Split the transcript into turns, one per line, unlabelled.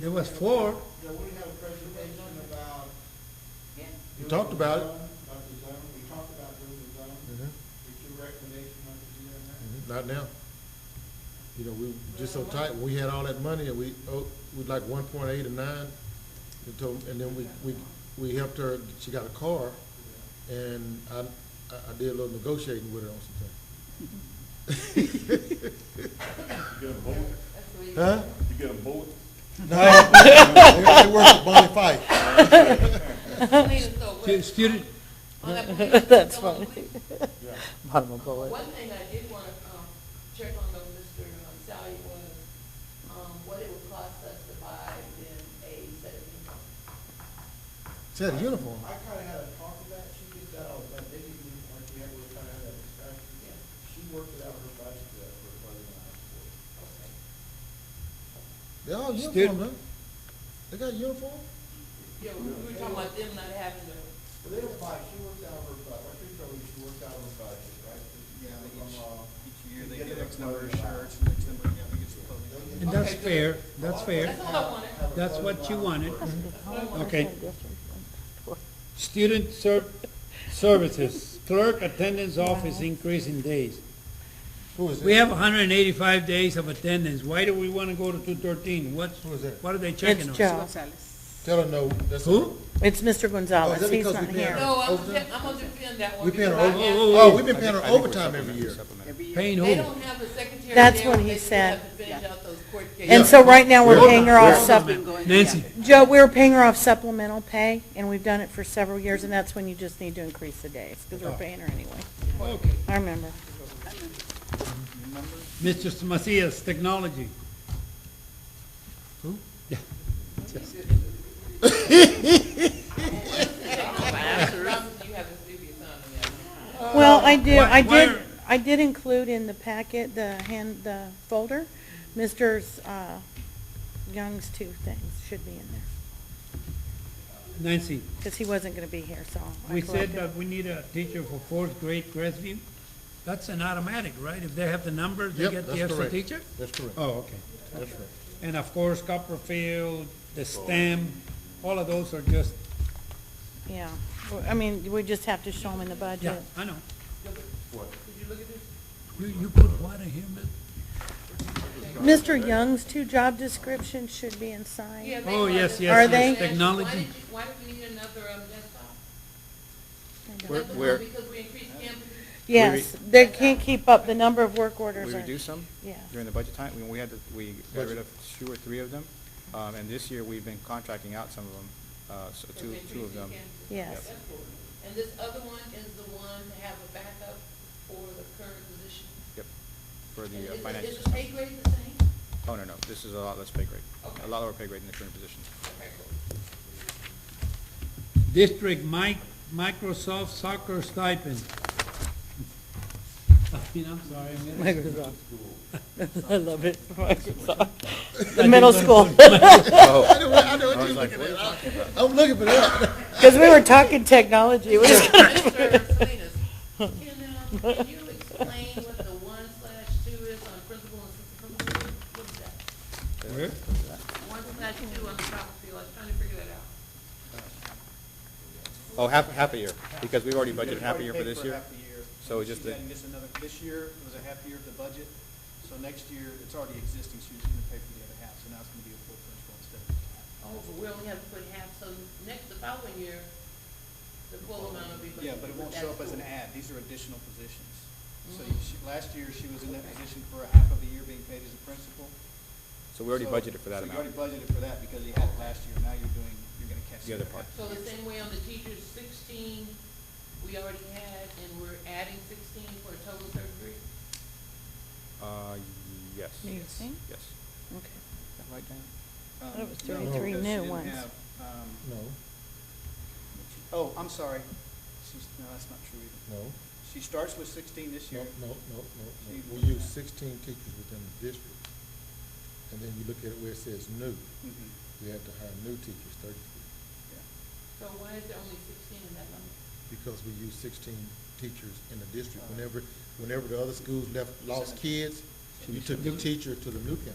There was four.
Yeah, we have a presentation about.
Yeah.
We talked about it.
About the zone, we talked about doing the zone, did your recommendation on the zone now?
Mm-hmm. Not now. You know, we were just so tight, we had all that money, and we, oh, we'd like one point eight or nine, and told, and then we, we, we helped her, she got a car, and I, I I did a little negotiating with her on some things.
You get a bullet,
That's the reason.
Huh?
you get a bullet,
No, it worked with Bonnie Fife.
Please don't wait.
Student,
On that point,
That's
come on,
funny.
please.
yeah.
Bottom of bullet.
One thing I did want to, um, check on though, Mr. um, Sally was, um, what it would cost us to buy them a set of uniforms.
She had a uniform.
I kinda had a talk with that, she did that, all, but they didn't even, like, we had, we kinda had that discussion.
Yeah.
She worked it out her budget, uh, for budget and I support.
Okay.
They all
Stu-
uniform, man. They got uniform?
Yeah, we we were talking about them not having the,
Well, they don't buy, she worked out her budget, I think so, she worked out her budget, right?
Yeah, they
From,
each,
uh,
each year
you
they
get
get
the
X number of
clothing
shirts, and X number, yeah, they get the clothing.
they get-
and that's fair, that's fair.
that's all I wanted.
Have a
That's
clothing
what you
line
wanted.
for-
Okay. Student ser- services, clerk attendance office increase in days.
Who is
We
that?
have hundred and eighty-five days of attendance. Why do we wanna go to two thirteen? What's,
Who is that?
what are they
It's
checking on?
Joe.
Tell her no, that's.
Who?
It's Mr.
Oh, is
Gonzalez.
that
He's
because we
not
paying
here.
her?
no, I'm,
Overtime?
I'm gonna defend that one.
We paying her
because I
over,
have-
oh, we've been paying her overtime every year.
Paying
They
who?
don't have a secretary.
That's
there,
what
but
he
they still
said.
have to finish out those court
And
cases.
so right now, we're
Yeah.
paying her off
Yeah.
sup,
Nancy,
Joe, we're paying her off supplemental pay, and we've done it for several years, and that's when you just need to increase the days, because
Oh.
we're paying her anyway. I remember.
Mr. Macias, technology.
You have a previous on that.
Well, I do,
why-
I
why
did,
are-
I did include in the packet, the hand, the folder, Mr. 's, uh, Young's two things should be in there,
Nancy,
because he wasn't gonna be here, so. I
we said
corrected.
that we need a teacher for fourth grade Crestview. That's an automatic, right? If they have the numbers, they
Yep,
get the
that's
extra
correct.
teacher?
That's correct.
Oh, okay.
That's right.
And of course, Copperfield, the STEM, all of those are just,
Yeah, Well, I mean, we just have to show them in the
yeah,
budget.
I know.
Did you look at this?
You, you put what in here, man?
Mr. Young's two job descriptions should be inside.
Yeah,
Oh,
they wanted-
yes, yes,
Are
yes,
they?
Why
technology.
did you, why did we need another um, desktop?
Where-
Another one
where-
Because we increased campus.
Yes, they can't keep up, the number of work orders
We
are.
reduced them
Yeah.
during the budget time, when we had, to- we got rid of two or three of them, um, and this year, we've been contracting out some of them, uh, so
because
two,
we
two
increased
of them.
campus.
Yes.
That's cool. And this other one is the one to have a backup for the current position.
Yep, for
And
the uh,
is
financial.
Is the pay grade the same?
Oh, no, no, this is a lot less pay grade,
Okay.
a lot lower pay grade than the current position.
Okay, cool.
District mic, Microsoft soccer stipend. I mean, I'm sorry, I mean,
Microsoft. I love it, Microsoft. The
I
middle
didn't
school,
wanna
Oh.
I
Oh,
know, I know what you're looking at. I'm looking for that.
because we were talking technology. we were-
Mr. Salinas, can, um, can you explain what the one slash two is on principal and assistant principal? What is that?
Where?
One slash two on the property, I was trying to figure that out.
Oh, half, half a year, because we've already budgeted half a year for this year.
Half a year.
So
And
it's just
she's
a-
adding this another, this year was a half year of the budget, so next year, it's already existing, so you're just gonna pay for the other half, so now it's gonna be a full principal instead of just half.
Oh, but we only have to put half, so next, the following year, the full amount will be.
Yeah, but it won't
that's
show up as an
cool.
ad, these are additional positions. So
Mm-hmm.
you- she, last year, she was in that position for a half of the year being paid as a principal.
So we already
So-
budgeted for that
So you
amount.
already budgeted for that because you had it last year, now you're doing, you're gonna catch.
The other
half.
part.
So the same way on the teachers, sixteen, we already had, and we're adding sixteen for a total of thirty-three?
Uh, yes.
You
Yes.
think?
Yes.
Okay.
Is that right, Dan?
Um,
thought it was
no,
33
because she
new
didn't
ones.
have, um,
No,
Oh, I'm sorry. She's, no, that's not true either.
no,
She starts with sixteen this
no,
year.
no, no, no, no. We use sixteen teachers within the district. And then you look at it where it says new,
Mhm,
we have to hire new teachers, thirty,
yeah.
So why is there only sixteen in that number?
because we use sixteen teachers in the district. Whenever, whenever the other schools left, lost kids, you took the teacher to the new campus.